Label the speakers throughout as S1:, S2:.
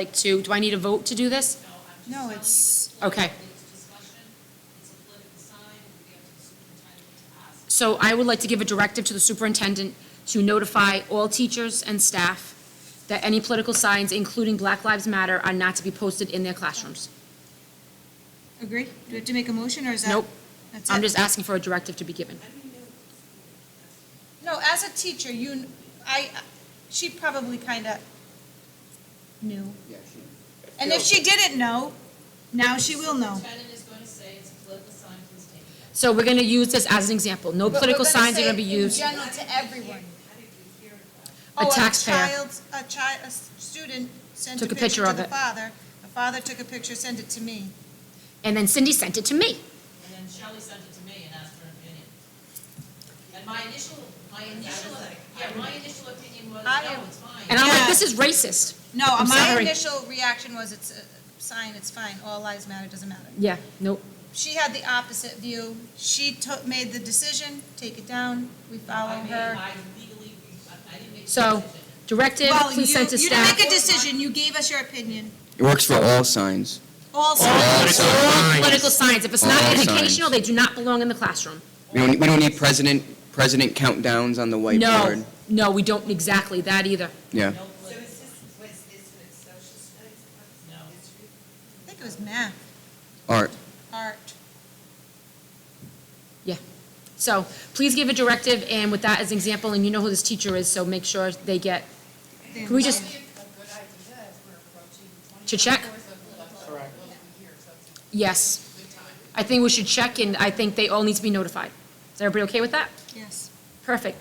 S1: like to, do I need a vote to do this?
S2: No, it's,
S1: Okay.
S3: It's discussion, it's a political sign, we have to the superintendent to ask.
S1: So I would like to give a directive to the superintendent to notify all teachers and staff that any political signs, including Black Lives Matter, are not to be posted in their classrooms.
S2: agree? Do we have to make a motion, or is that?
S1: Nope.
S2: That's
S1: I'm
S2: it?
S1: just asking for a directive to be given.
S2: No, as a teacher, you, kn- I, she probably kind of knew.
S4: Yeah, she.
S2: And if she didn't know, now she will know.
S3: Superintendent is going to say it's a political sign, please take it.
S1: So we're going to use this as an example. No political signs are going to be used.
S2: general, to everyone.
S3: How did we hear that?
S1: A taxpayer.
S2: Oh, a child, a child, a s- student sent a
S1: Took a
S2: picture
S1: picture
S2: to
S1: of
S2: the
S1: it.
S2: father. The father took a picture, sent it to me.
S1: And then Cindy sent it to me.
S3: And then Shelley sent it to me and asked for an opinion. And my initial, my initial, yeah, my initial opinion was,
S2: I
S3: no,
S2: am-
S3: it's
S1: And
S3: fine.
S1: I'm like,
S2: Yeah.
S1: this is racist.
S2: No,
S1: I'm
S2: my
S1: sorry.
S2: initial reaction was, it's a sign, it's fine, all lives matter, doesn't matter.
S1: Yeah, nope.
S2: She had the opposite view. She took, made the decision, take it down, we follow
S3: I made,
S2: her.
S3: I legally, I I didn't make the
S1: So
S3: decision.
S1: directive,
S2: Well, you,
S1: please
S2: you
S1: send to
S2: didn't
S1: staff.
S2: make a decision, you gave us your opinion.
S4: It works for all signs.
S2: Also,
S1: All political signs, if it's not
S4: All signs.
S1: educational, they do not belong in the classroom.
S4: We don't, we don't need president, president countdowns on the whiteboard.
S1: No, no, we don't exactly that either.
S4: Yeah.
S3: No
S5: So
S3: political,
S5: is this, was, is it social studies?
S3: no.
S2: I think it was math,
S4: Art.
S2: art.
S1: Yeah. So please give a directive, and with that as an example, and you know who this teacher is, so make sure they get, can we just,
S5: Probably A good idea as we're approaching twenty.
S1: To check?
S5: Correct. so it's a
S1: yes.
S5: good time.
S1: I think we should check, and I think they all need to be notified. Is everybody okay with that?
S2: Yes,
S1: Perfect.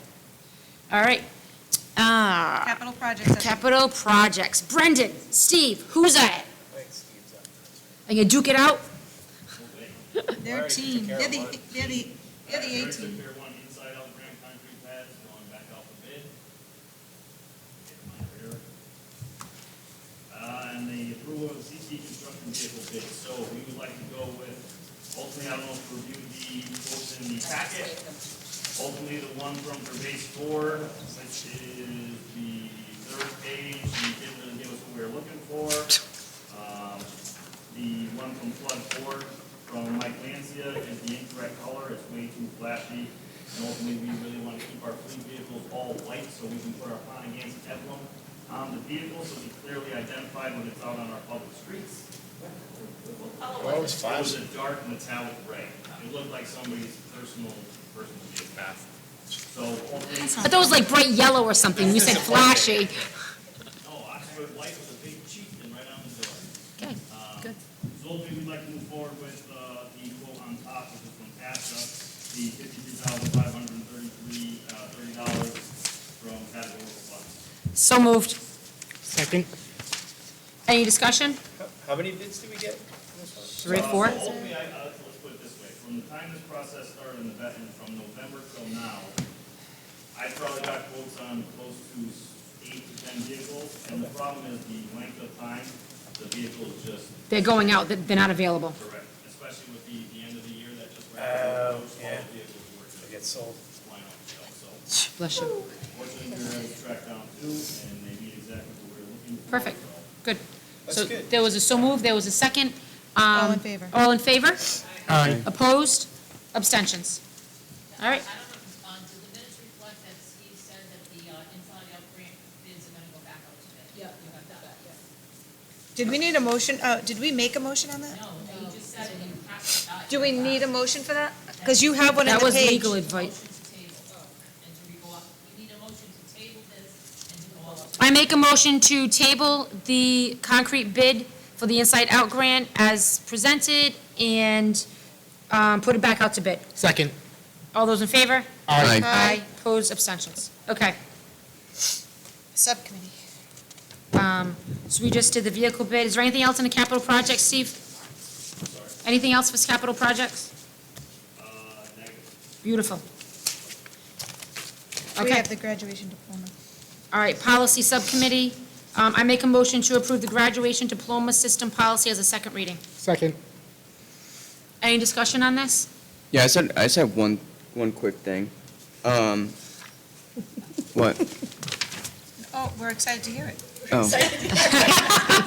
S1: All right. Uh,
S2: capital projects. I think.
S1: Capital projects. Brendan, Steve, who's at it? Are you gonna duke it out?
S2: They're a team, they're the, they're the, they're the A
S6: First,
S2: team.
S6: if they're wanting inside out ground concrete pads, going back out for bid. Get them out of here. Uh, and the approval of CT construction vehicle bid, so we would like to go with, ultimately, I don't know if you reviewed the quotes in the packet. Ultimately, the one from Pervase Four, which is the third page, you didn't really give us what we were looking for. Um, the one from Flood Ford from Mike Lancia is the incorrect color, it's way too flashy. And ultimately, we really want to keep our fleet vehicles all white so we can put our Pontiac's emblem on the vehicle so it's clearly identified when it's out on our public streets.
S7: Well, it's
S6: It
S7: five,
S6: was a dark metallic gray. It looked like somebody's personal, personal vehicle. So ultimately,
S1: I thought it was like bright yellow or something. You said flashy.
S6: oh, Oxford Light was a big cheat and right on the door.
S1: Okay, good.
S6: So ultimately, we'd like to move forward with uh, the quote on top, which is from PASTA, the fifty-two thousand five hundred and thirty-three, uh, thirty dollars from categorical funds.
S1: So moved.
S8: Second.
S1: Any discussion?
S7: how many bids do we get?
S1: Three,
S6: Uh,
S1: four?
S6: So ultimately, I, uh, let's put it this way, from the time this process started in the vet, and from November till now, I probably got quotes on close to eight to ten vehicles, and the problem is the length of time the vehicles just
S1: They're going out, they're not available.
S6: direct, especially with the, the end of the year that just wrapped up.
S7: Oh,
S6: All
S7: yeah.
S6: the vehicles were just.
S7: Get sold.
S6: line on itself. So
S1: Bless you.
S6: fortunately, we were able to track down two, and they meet exactly what we were looking for.
S1: Perfect.
S6: So
S1: Good.
S7: That's
S1: So
S7: good.
S1: there was a so moved, there was a second.
S2: All in
S1: Um,
S2: favor.
S1: All in favor?
S8: Aye.
S1: Opposed? Abstentions? All right.
S3: I don't know, um, do the minutes reflect that Steve said that the uh, inside out grant bids are gonna go back out today? Yeah. You have that, yes.
S2: Did we need a motion, uh, did we make a motion on that?
S3: No, you just said it, you have to, uh,
S2: Do we need a motion for that? Because you have one in the
S1: That
S2: page.
S1: was legal advice.
S3: motion to table, Oh, and to go up, you need a motion to table this and to go up.
S1: I make a motion to table the concrete bid for the Inside Out grant as presented and um, put it back out to bid.
S8: Second.
S1: All those in favor?
S4: Aye.
S1: Aye. Opposed, abstentions. Okay.
S2: Subcommittee.
S1: Um, So we just did the vehicle bid. Is there anything else in the capital project, Steve? Anything else for capital projects?
S6: uh,
S1: Beautiful.
S2: We
S1: Okay.
S2: have the graduation diploma.
S1: All right, policy subcommittee. Um, I make a motion to approve the graduation diploma system policy as a second reading.
S8: Second.
S1: Any discussion on this?
S4: Yeah, I said, I said one, one quick thing. Um, what?
S2: Oh, we're excited to hear it.
S4: Oh.